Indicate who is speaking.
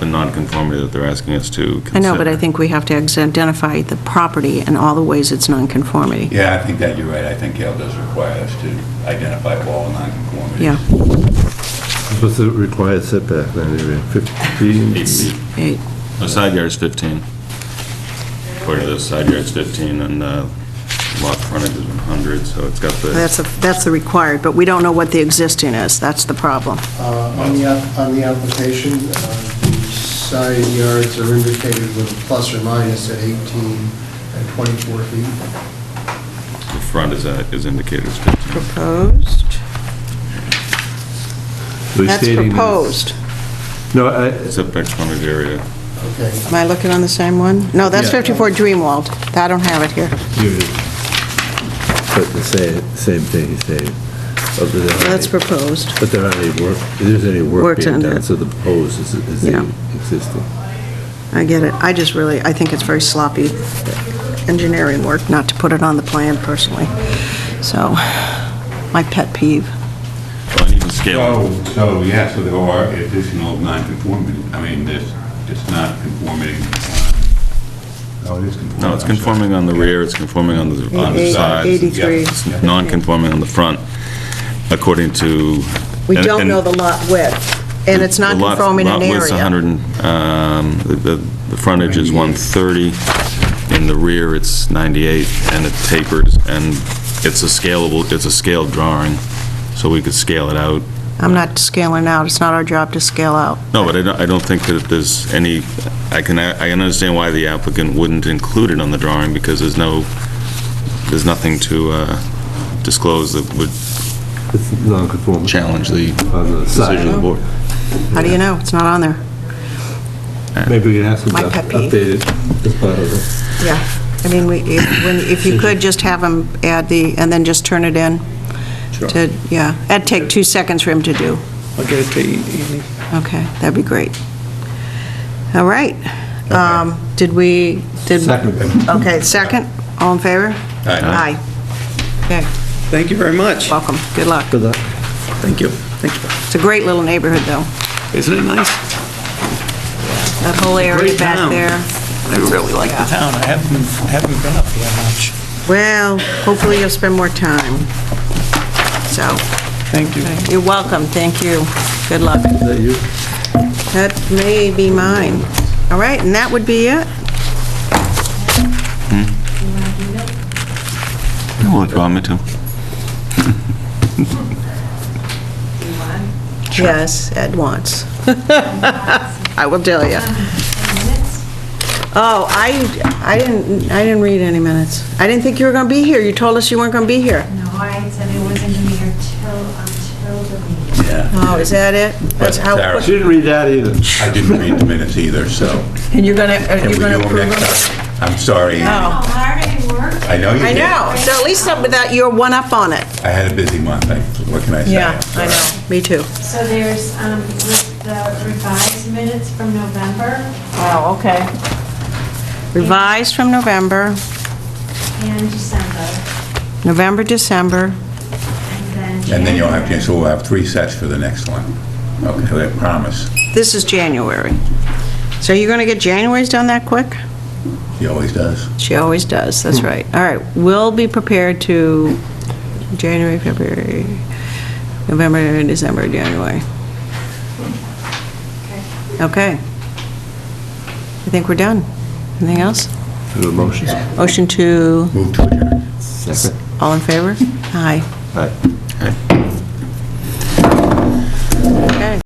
Speaker 1: the nonconformity that they're asking us to consider.
Speaker 2: I know, but I think we have to identify the property and all the ways it's nonconformity.
Speaker 3: Yeah, I think that you're right. I think Gail does require us to identify all nonconformities.
Speaker 2: Yeah,
Speaker 4: What's the required setback then, area 15?
Speaker 1: Eight feet.
Speaker 2: eight,
Speaker 1: The side yard's 15. According to this, side yard's 15, and uh, lot frontage is 100, so it's got the,
Speaker 2: that's, a- that's the required, but we don't know what the existing is, that's the problem.
Speaker 5: Uh, On the, app- on the application, uh, the side yards are indicated with a plus or minus at 18 and 24 feet.
Speaker 1: the front is, uh, is indicated as 15.
Speaker 2: Proposed, that's proposed.
Speaker 4: No, I,
Speaker 1: Setback frontage area,
Speaker 5: Okay,
Speaker 2: Am I looking on the same one? No, that's
Speaker 4: Yeah.
Speaker 2: 54 Dreamwald, I don't have it here.
Speaker 4: you, but the same, same thing he's saying. But there aren't
Speaker 2: That's
Speaker 4: any-
Speaker 2: proposed.
Speaker 4: But there aren't any work, there's any work
Speaker 2: Works
Speaker 4: being
Speaker 2: under
Speaker 4: done,
Speaker 2: it.
Speaker 4: so the proposed is, is
Speaker 2: Yeah.
Speaker 4: the existing.
Speaker 2: I get it. I just really, I think it's very sloppy engineering work not to put it on the plan personally. So, my pet peeve.
Speaker 1: Well, and even scale,
Speaker 3: So, so, yeah, so there are additional nonconformity. I mean, this, it's not conforming. uh, No, it is conforming.
Speaker 1: no, it's conforming on the rear, it's conforming on the, on the
Speaker 2: Eight-
Speaker 1: sides,
Speaker 2: Eighty-three.
Speaker 3: yeah.
Speaker 1: it's non-conforming on the front, according to...
Speaker 2: We
Speaker 1: and-
Speaker 2: don't
Speaker 1: and-
Speaker 2: know the lot width, and it's not
Speaker 1: The lot-
Speaker 2: conforming in
Speaker 1: Lot width's
Speaker 2: area.
Speaker 1: 100, and, um, the- the the frontage is 130, in the rear it's 98, and it tapers, and it's a scalable, it's a scaled drawing, so we could scale it out.
Speaker 2: I'm not scaling out. It's not our job to scale out.
Speaker 1: No, but I don't, I don't think that there's any, I can, I can understand why the applicant wouldn't include it on the drawing, because there's no, there's nothing to uh, disclose that would
Speaker 4: It's non-conforming.
Speaker 1: challenge the
Speaker 4: On the side.
Speaker 1: decision of the board.
Speaker 2: How do you know? It's not on there.
Speaker 4: Maybe we can ask them
Speaker 2: My
Speaker 4: to
Speaker 2: pet peeve.
Speaker 4: update it as part of it.
Speaker 2: Yeah. I mean, we, if, when, if you could just have him add the, and then just turn it in. To, yeah. That'd take two seconds for him to do.
Speaker 6: I'll get it to you, Amy.
Speaker 2: Okay, that'd be great. All right. Um, Did we, did...
Speaker 4: Second.
Speaker 2: Okay, second, all in favor?
Speaker 3: Aye.
Speaker 2: Aye. Okay,
Speaker 6: Thank you very much.
Speaker 2: welcome, good luck.
Speaker 4: Good luck.
Speaker 6: Thank you. Thank you.
Speaker 2: It's a great little neighborhood, though,
Speaker 6: Isn't it nice?
Speaker 2: that whole area
Speaker 6: Great
Speaker 2: back
Speaker 6: town.
Speaker 2: there.
Speaker 6: I really like the town. I haven't, haven't been up here much.
Speaker 2: Well, hopefully you'll spend more time. So,
Speaker 6: Thank you.
Speaker 2: you're welcome, thank you, good luck.
Speaker 4: Is that you?
Speaker 2: That may be mine. All right, and that would be it?
Speaker 1: Well, if you want me to.
Speaker 2: Yes, at once. I will tell you. Oh, I, I didn't, I didn't read any minutes. I didn't think you were going to be here. You told us you weren't going to be here.
Speaker 7: No, I said it wasn't gonna be here till, until the meeting.
Speaker 2: Oh, is that it? That's how.
Speaker 3: Sarah.
Speaker 4: She didn't read that either.
Speaker 3: I didn't read the minutes either, so.
Speaker 2: And you're going to, are
Speaker 3: Can
Speaker 2: you
Speaker 3: we
Speaker 2: going
Speaker 3: do
Speaker 2: to
Speaker 3: 'em
Speaker 2: approve
Speaker 3: next
Speaker 2: it?
Speaker 3: time? I'm sorry, Andy.
Speaker 2: Oh.
Speaker 7: How hard I worked.
Speaker 3: I know you
Speaker 2: I
Speaker 3: did.
Speaker 2: know. So at least something that you're one up on it.
Speaker 3: I had a busy month. I- What can I say?
Speaker 2: I know. Me too.
Speaker 7: So there's, um, with the revised minutes from November
Speaker 2: Oh, okay. Revised from November,
Speaker 7: and December,
Speaker 2: November, December.
Speaker 7: and then.
Speaker 3: And then you'll have,
Speaker 7: January.
Speaker 3: to- so we'll have three sets for the next one. Okay, I promise.
Speaker 2: This is January. So you're going to get January's done that quick? Hmm.
Speaker 3: He always does.
Speaker 2: She always does, that's right. All right, we'll be prepared to January, February, November, December, January. Okay. I think we're done. Anything else?
Speaker 4: Do a motion.
Speaker 2: Motion to,
Speaker 3: Move to adjourn.
Speaker 4: Second.
Speaker 2: all in favor? Aye.
Speaker 4: Aye.
Speaker 2: Okay.